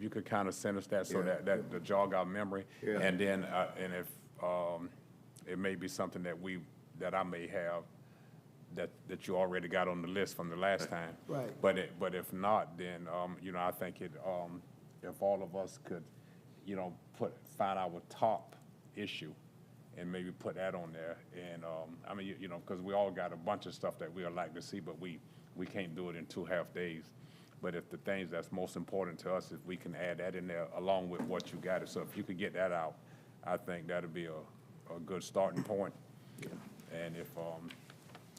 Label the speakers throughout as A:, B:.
A: you could kind of send us that so
B: Yeah.
A: that, that to jog our memory.
B: Yeah.
A: And then, uh, and if, um, it may be something that we, that I may have, that, that you already got on the list from the last time.
C: Right.
A: But it, but if not, then, um, you know, I think it, um, if all of us could, you know, put, find our top issue and maybe put that on there. And, um, I mean, you, you know, because we all got a bunch of stuff that we would like to see, but we, we can't do it in two half days. But if the things that's most important to us, if we can add that in there along with what you got, so if you could get that out, I think that'd be a, a good starting point. And if, um,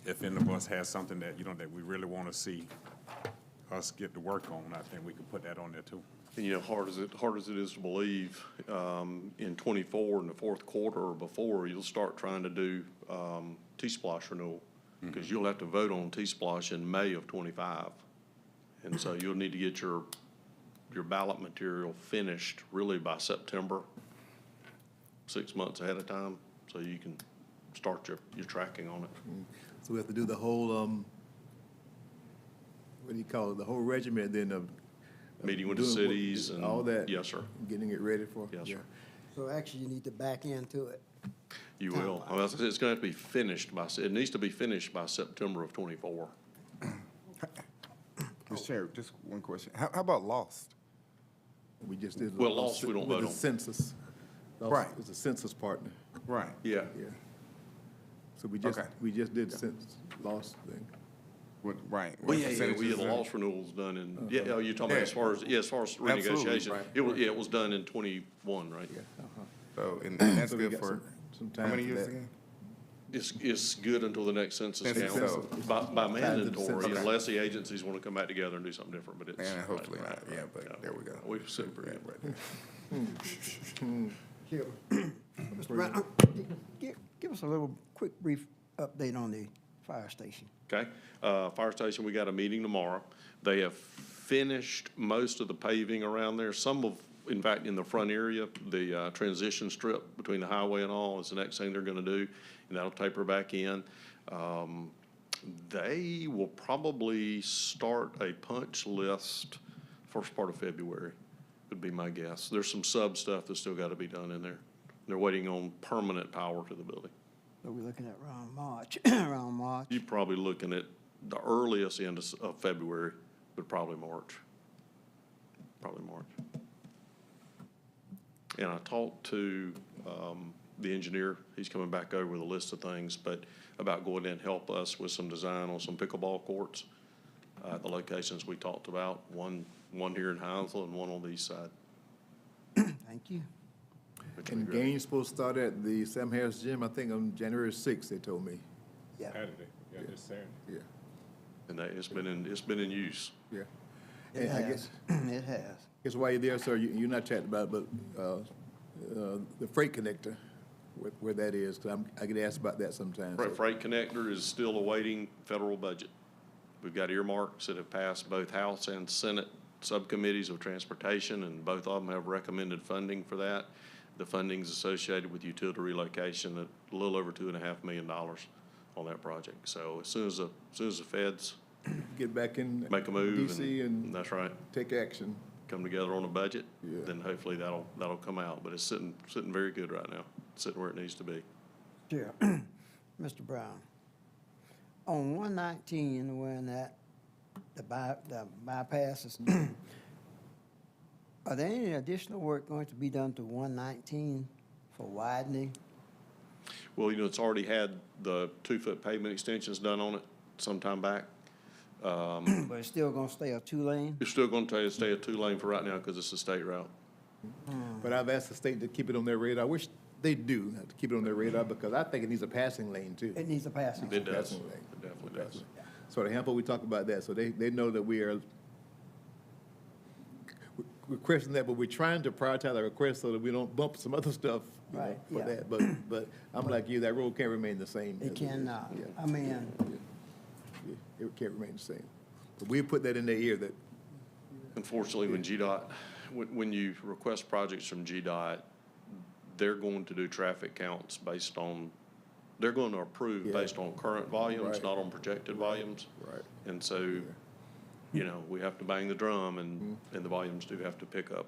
A: if any of us has something that, you know, that we really want to see us get to work on, I think we could put that on there too.
D: And, you know, hard as it, hard as it is to believe, um, in twenty-four, in the fourth quarter or before, you'll start trying to do, um, T-Splosh renewal. Cause you'll have to vote on T-Splosh in May of twenty-five. And so you'll need to get your, your ballot material finished really by September, six months ahead of time, so you can start your, your tracking on it.
B: So we have to do the whole, um, what do you call it, the whole regiment then of. of
D: Meeting with the
B: doing what-
D: cities and-
B: All that.
D: Yes, sir.
B: Getting it ready for.
D: Yes, sir.
B: yeah.
C: So actually, you need to back into it.
D: You will. I mean, it's it's gonna have to be finished by, se- it needs to be finished by September of twenty-four.
B: Oh.
E: Mr. Chair, just one question. How, how about lost?
B: We just did.
D: Well, lost, we don't
B: with
D: vote
B: the
D: on.
B: Census. Lost
E: Right.
B: It's a census partner,
E: Right.
D: Yeah.
B: yeah. So we just,
E: Okay.
B: we just did census, lost thing.
E: What, right.
D: Well,
E: What
D: Oh, yeah, yeah, we
E: percentages
D: had
E: and-
D: loss renewals done in, yeah, oh, you're talking about as
E: uh, Uh-huh. Yeah.
D: far as, yeah, as far as
E: Absolutely,
D: renegotiation.
E: right,
D: It was, yeah, it was done in twenty-one, right?
E: So, and and that's
B: So we
E: good
B: got
E: for,
B: some- some
E: how
B: time
E: many
B: for
E: years
B: that.
E: again?
D: It's, it's good until the next census
E: Census, so-
D: count, by, by mandatory,
B: census.
D: unless the agencies want to come back together and do something different, but it's.
E: And hopefully not, yeah, but there we go.
D: We super, yeah.
E: Right there.
C: Here, Mr. Brown, give, give us a little quick brief update on the fire station.
D: Okay, uh, fire station, we got a meeting tomorrow. They have finished most of the paving around there, some of, in fact, in the front area, the, uh, transition strip between the highway and all is the next thing they're gonna do, and that'll taper back in. Um, they will probably start a punch list first part of February, would be my guess. There's some sub stuff that's still gotta be done in there. They're waiting on permanent power to the building.
C: So we're looking at around March, around March.
D: You're probably looking at the earliest end of s- of February, but probably March. Probably March. And I talked to um, the engineer, he's coming back over with a list of things, but about going in and help us with some design on some pickleball courts uh, at the locations we talked about, one, one here in Hounslow and one on the east side.
C: Thank you.
D: which would be
B: And
D: great.
B: game's supposed to start at the Sam Harris Gym, I think on January sixth, they told me,
C: Yeah.
B: Uh,
A: Saturday, yeah, this Saturday.
B: yeah,
D: And that, it's been in, it's been in use.
B: yeah.
C: It
B: And I guess,
C: has, it has.
B: guess while you're there, sir, you, you're not chatting about, it, but, uh, uh, the freight connector, where, where that is, cause I'm, I get asked about that sometimes.
D: Freight, Freight Connector is still awaiting federal budget. We've got earmarks that have passed both House and Senate subcommittees of transportation, and both of them have recommended funding for that. The funding's associated with utility relocation at a little over two and a half million dollars on that project. So as soon as, the as soon as the feds
B: Get back in.
D: make a move,
B: DC
D: and
B: and
D: that's right,
B: take action.
D: come together on a budget,
B: Yeah.
D: then hopefully that'll, that'll come out. But it's sitting, sitting very good right now, sitting where it needs to be.
C: Sure. Mr. Brown, on one nineteen, when that, the by, the bypasses, are there any additional work going to be done to one nineteen for widening?
D: Well, you know, it's already had the two-foot pavement extensions done on it sometime back.
C: But it's still gonna stay a two-lane?
D: It's still gonna tell you to stay a two-lane for right now because it's a state route.
B: But I've asked the state to keep it on their radar. I wish they do, have to keep it on their radar, because I think it needs a passing lane too.
C: It needs a passing.
D: It does.
B: Passing lane.
D: It definitely does.
B: So the Hampo, we talk about that, so they, they know that we are, we- we're questioning that, but we're trying to prioritize our requests so that we don't bump some other stuff, you know,
C: Right,
B: for
C: yeah.
B: that. But, but I'm like you, that road can't remain the same. as
C: It uh,
B: is.
C: cannot.
B: Yeah.
C: I mean,
B: Yeah, It can't remain the same. But we put that in their ear, that
D: Unfortunately, when GDOT, when, when you request projects from GDOT, they're going to do traffic counts based on, they're going to approve
B: Yeah.
D: based on current volumes,
B: Right.
D: not on projected volumes.
B: Right. Mm-hmm.
D: And so, you know, we have to bang the drum and, and the volumes do have to pick up